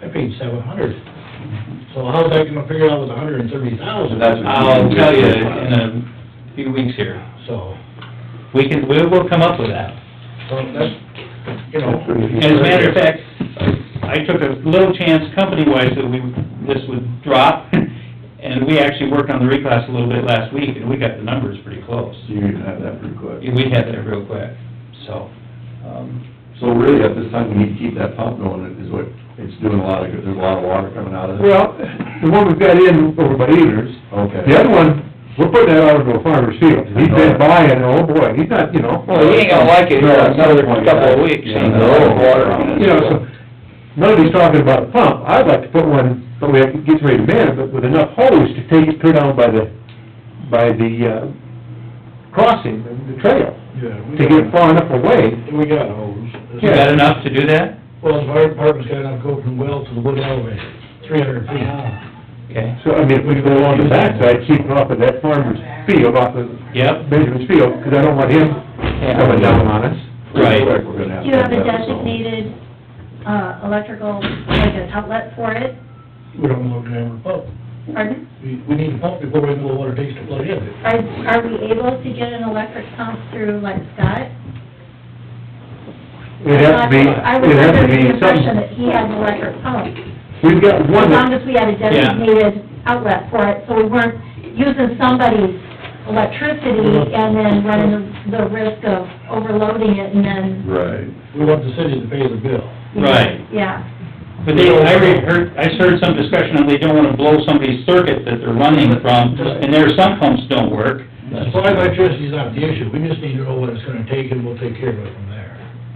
I paid seven hundred. So how's that gonna figure out with a hundred and thirty thousand? That's what I'll tell you in a few weeks here. So, We can, we will come up with that. so that's, you know, And as a matter of fact, I took a little chance company-wise that we, this would drop, and we actually worked on the reclass a little bit last week, and we got the numbers pretty close. So you're gonna have that pretty quick. We had that real quick, so, um, So really, at this time, we need to keep that pump going, is what, it's doing a lot of good, there's a lot of water coming out of it. Well, the one we've got in over by Eaters, Okay. the other one, we're putting that out into a farmer's field. He's been buying, oh boy, he's not, you know. Well, he ain't gonna like it No, for at some another point, couple of yeah. weeks. Yeah, you know, no. water on it. You know, so, nobody's talking about a pump. I'd like to put one, but we have to get ready to man it, but with enough hose to take it clear down by the, by the, uh, crossing, the trail, yeah, we to get got, it far enough away. we got hose. you got enough to do that? Well, the fire department's got enough go from well to the wood elevator, three hundred feet. Okay, So, I mean, if we go along the backside, keep it off of that farmer's field, off of yep, Benjamin's field, 'cause I don't want him coming down on us. right. We're gonna have Do you have a to that, so. designated, uh, electrical, like an outlet for it? We don't know grammar pump. Pardon? We, we need a pump before we know what it takes to plug in. Are, are we able to get an electric pump through like Scott? It'd have to be, I was it'd have to under be the impression some, that he had an electric pump. we've got As one long that, as we had a designated outlet for it, so we weren't using somebody's electricity and then running the- the risk of overloading it and then... Right. We want the city to pay the bill. Right. Yeah. But they, I re- heard, I heard some discussion on they don't wanna blow somebody's circuit that they're running from, and their sump pumps don't work. Supply electricity's not the issue, we just need to know what it's gonna take and we'll take care of it from there.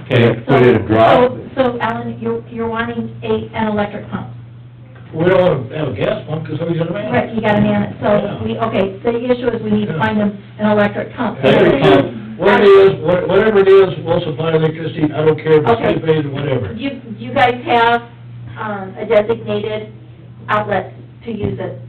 Okay, So- Put in a drop. so- So Alan, you're, you're wanting a, an electric pump? We don't wanna have a gas pump, cause somebody's gonna man Right, it. you gotta man it, so we, okay, the issue is we need to find them an electric pump. Electric pump. What it is, what- whatever it is, we'll supply electricity, I don't care if the city pays or whatever. Do you, do you guys have, um, a designated outlet to use it?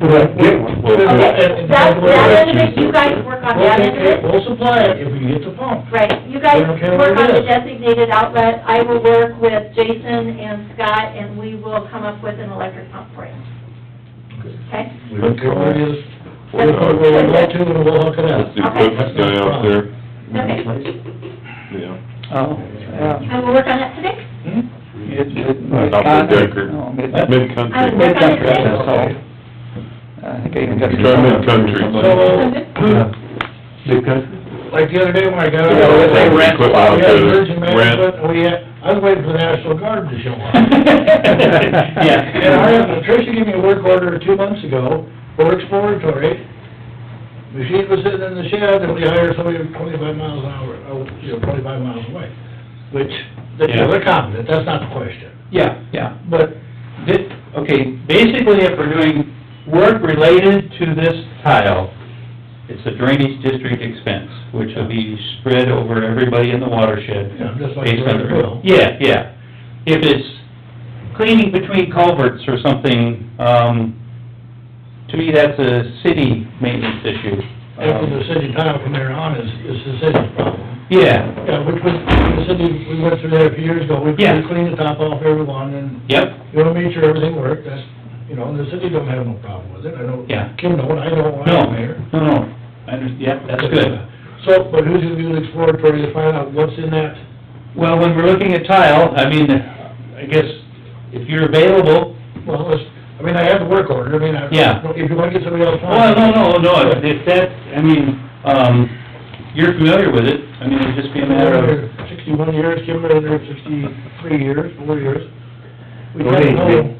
we'll get one. Okay, that, that end of it, you guys work on that end of it? We'll supply it if we get the pump. Right, you guys Okay, we'll work do on it. the designated outlet, I will work with Jason and Scott, and we will come up with an electric pump for you. Okay? Whatever it is, That's- whatever we want to, and we'll hook it up. That's the equipment guy out there, Okay, yeah. oh, I will work on that today. Hmm? Not the Decker. I will Mid-country. work on it today. I think I even got. Try mid-country. So, Big country. like the other day when I got out. Yeah, well, they rent Equipment We out had there, emergency rent. management, and we had, I was waiting for the National Guard to show up. And I, Yeah. have- Tricia gave me a work order two months ago for exploratory. Machine was sitting in the shed and we hired somebody twenty-five miles an hour, oh, you know, twenty-five miles away. Which, they- you know, they're competent, that's not the question. Yeah, yeah. But Thi- okay, basically if we're doing work related to this tile, it's a drainage district expense, which will be spread over everybody in the watershed. Yeah, just like based on the rest of the bill. Yeah, yeah. If it's cleaning between culverts or something, um, to me, that's a city maintenance issue. after Um, the city tile from there on is, is the city's problem. Yeah, Yeah, which was, the city, we went through that a few years ago, we Yeah. cleaned the top off everyone and yep, You wanna make sure everything worked, that's, you know, and the city don't have no problem with it, I know, Yeah. Kim don't, I don't, when no, I'm mayor. no, no, I under, yeah, that's good. So, but who's gonna do the exploratory to find out what's in that? Well, when we're looking at tile, I mean, I guess if you're available, Well, let's, I mean, I have the work order, I mean, I, Yeah. if you wanna get somebody else on. well, Oh, no, no, no, if that, I mean, um, you're familiar with it, I mean, it'd just be a matter of, Sixty-one years, Kim been there sixty-three years, four years. We Don't kinda age me. know,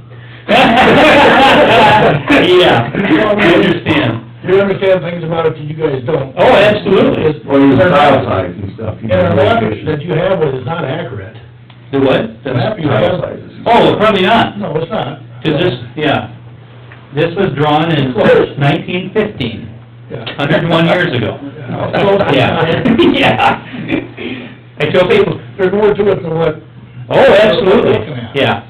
yeah, I understand. you understand things about it that you guys don't. Oh, absolutely. Is- Well, there's tile size and stuff. you And know, the map location. that you have with is not accurate. The what? The map you have, Tile sizes. Oh, probably not, no, it's not. 'cause this, yeah, this was drawn in nineteen fifteen, Yeah. hundred and one years ago. Yeah. Yeah, yeah. I tell people, There's more to it than what, oh, absolutely, yeah.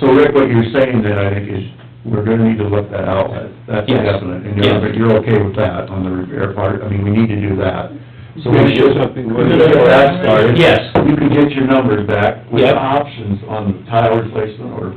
So Rick, what you're saying then, I think, is we're gonna need to look that outlet, that's Yes. definite, and you're, but you're okay with that on the repair part, I mean, we need to do that. So we should, we should get that started. Yes. You can get your numbers back with Yep. options on the tile replacement or